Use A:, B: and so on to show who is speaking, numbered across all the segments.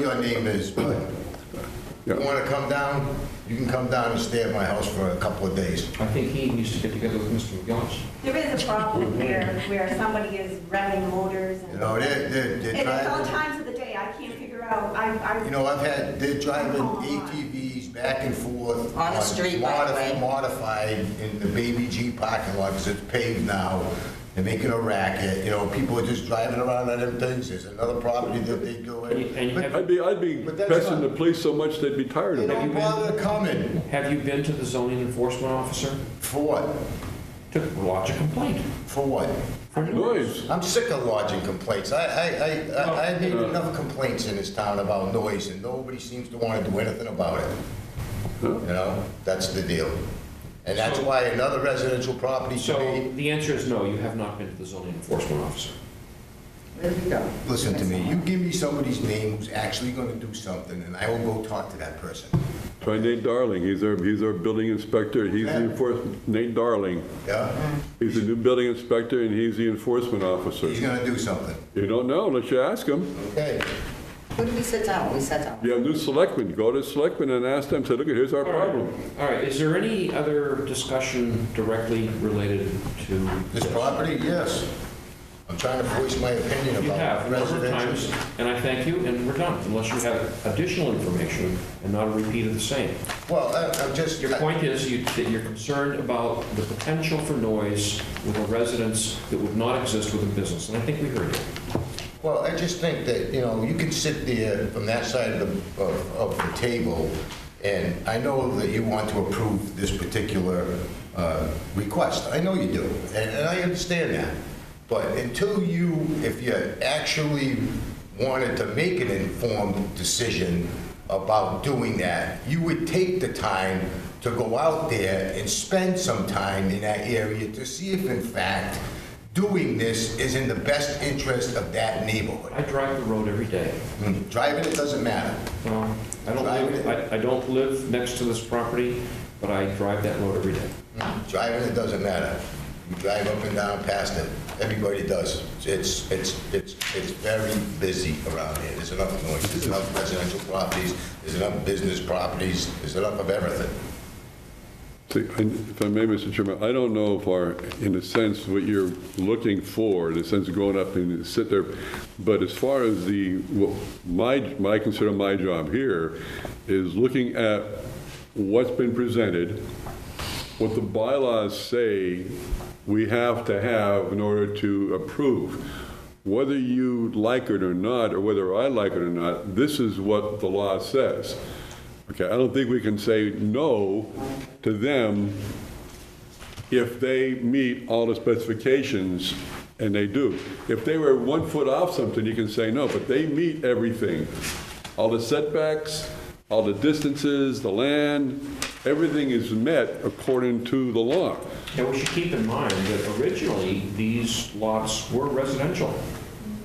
A: your name is, but you
B: Yeah.
A: want to come down, you can come down and stay at my house for a couple of days.
C: I think he needs to get together with Mr. McGillis.
D: There is a problem where, where somebody is revving motors
A: Mm-hmm. You
D: and.
A: know, they're, they're, they're
D: And it's all
A: driving,
D: times of the day, I can't figure out, I, I.
A: you know, I've had, they're driving
D: Oh, my.
A: ATVs back and forth.
E: On the street, by the
A: modif-
E: way.
A: Modified in the Baby G parking lot, because it's paved now. They're making a racket, you know, people are just driving around on them things. There's another property that they go
C: And you-
A: in.
C: and you
A: But
B: I'd be, I'd be
A: But that's
B: pestering
A: not-
B: the police so much they'd be tired
A: They
B: of it.
A: don't
C: you been-
A: bother coming.
C: Have you been to the zoning enforcement officer
A: For what?
C: to lodge a complaint?
A: For what?
C: for
B: Noise.
A: I'm sick of lodging complaints. I, I, I, I- I made enough complaints in this town about noise, and nobody seems to want to do anything about it. You know, that's the deal. And that's
C: So-
A: why another residential property should
C: So
A: be,
C: the answer is no, you have not been to the zoning enforcement officer.
E: There you go.
A: listen to me, you give me somebody's name who's actually gonna do something, and I will go talk to that person.
B: Try Nate Darling, he's our, he's our building inspector, he's the
A: Yeah.
B: enforcement, Nate Darling.
A: Yeah?
B: He's the new building inspector and he's the enforcement officer.
A: He's gonna do something,
B: You don't know unless you ask him.
A: okay?
E: Who did we sit down? We sat down.
B: You have new selectmen, go to selectmen and ask them, say, look, here's our problem.
C: All right, is there any other discussion directly related to?
A: This property, yes. I'm trying to voice my opinion
C: You
A: about
C: have, a number of
A: residential.
C: times, and I thank you, and we're done, unless you have additional information and not a repeat of the same.
A: Well, I- I'm just,
C: Your point is you- that you're concerned about the potential for noise with a residence that would not exist with a business, and I think we heard you.
A: Well, I just think that, you know, you can sit there from that side of the, of, of the table, and I know that you want to approve this particular, uh, request. I know you do, and, and I understand that. But until you, if you actually wanted to make an informed decision about doing that, you would take the time to go out there and spend some time in that area to see if in fact doing this is in the best interest of that neighborhood.
C: I drive the road every day.
A: Driving it doesn't matter.
C: Well, I don't live, I, I don't live next to this property, but I drive that road every day.
A: Driving it doesn't matter. You drive up and down past it. Everybody does. It's, it's, it's, it's very busy around here. There's enough noise, there's enough residential properties, there's enough business properties, there's enough of everything.
B: See, and If I may, Mr. Chairman, I don't know if our, in a sense, what you're looking for, in a sense of going up and sit there, but as far as the, what my, my, consider my job here is looking at what's been presented, what the bylaws say we have to have in order to approve. Whether you like it or not, or whether I like it or not, this is what the law says. Okay, I don't think we can say no to them if they meet all the specifications, and they do. If they were one foot off something, you can say no, but they meet everything. All the setbacks, all the distances, the land, everything is met according to the law.
C: Now, we should keep in mind that originally, these lots were residential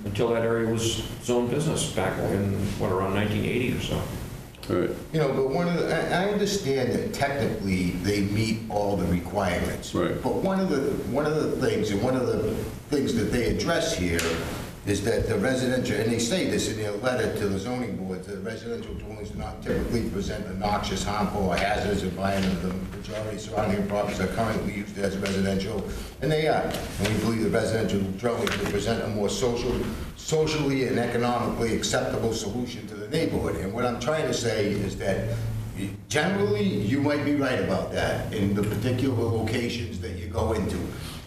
C: until that area was zoned business back in, what, around 1980 or so.
B: All right,
A: You know, but one of the, I, I understand that technically they meet all the requirements.
B: Right.
A: But one of the, one of the things, and one of the things that they address here is that the residential, and they say this in their letter to the zoning board, the residential dwellings do not typically present a noxious, harmful, or hazardous environment. The majority of surrounding properties are currently used as residential, and they are. And we believe the residential dwellings will present a more social, socially and economically acceptable solution to the neighborhood. And what I'm trying to say is that Generally, you might be right about that in the particular locations that you go into.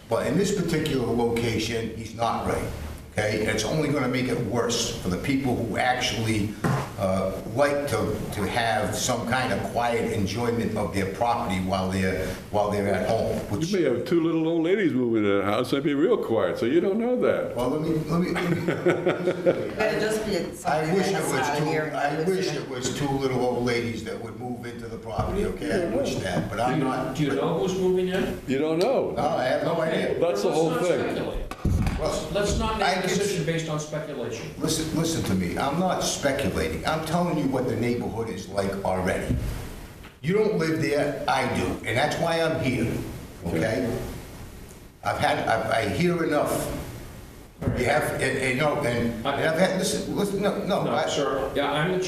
A: But in this particular location, he's not right, okay? And it's only gonna make it worse for the people who actually uh, like to, to have some kind of quiet enjoyment of their property while they're, while they're at home, which,
B: You may have two little old ladies moving in the house, they'd be real quiet, so you don't know that.
A: well, let me, let me, let me
E: Better just be at
A: I
E: something
A: wish it
E: that's not
A: was two,
E: here.
A: I wish it was two little old ladies that would move into the property, okay? I wish that, but
C: Do
A: I'm
C: you-
A: not.
C: Do you know who's moving in?
B: You don't know.
A: No, I have no idea.
B: That's the
C: Let's
B: whole
C: not
B: thing.
C: speculate.
A: Well,
C: Let's not
A: I
C: make a
A: can-
C: decision based on speculation.
A: Listen, listen to me, I'm not speculating, I'm telling you what the neighborhood is like already. You don't live there, I do, and that's why I'm here, okay? I've had, I, I hear enough, You have, and, and no, and, and I've had, listen, listen, no, no.
C: No,
A: I-
C: sir, yeah, I'm the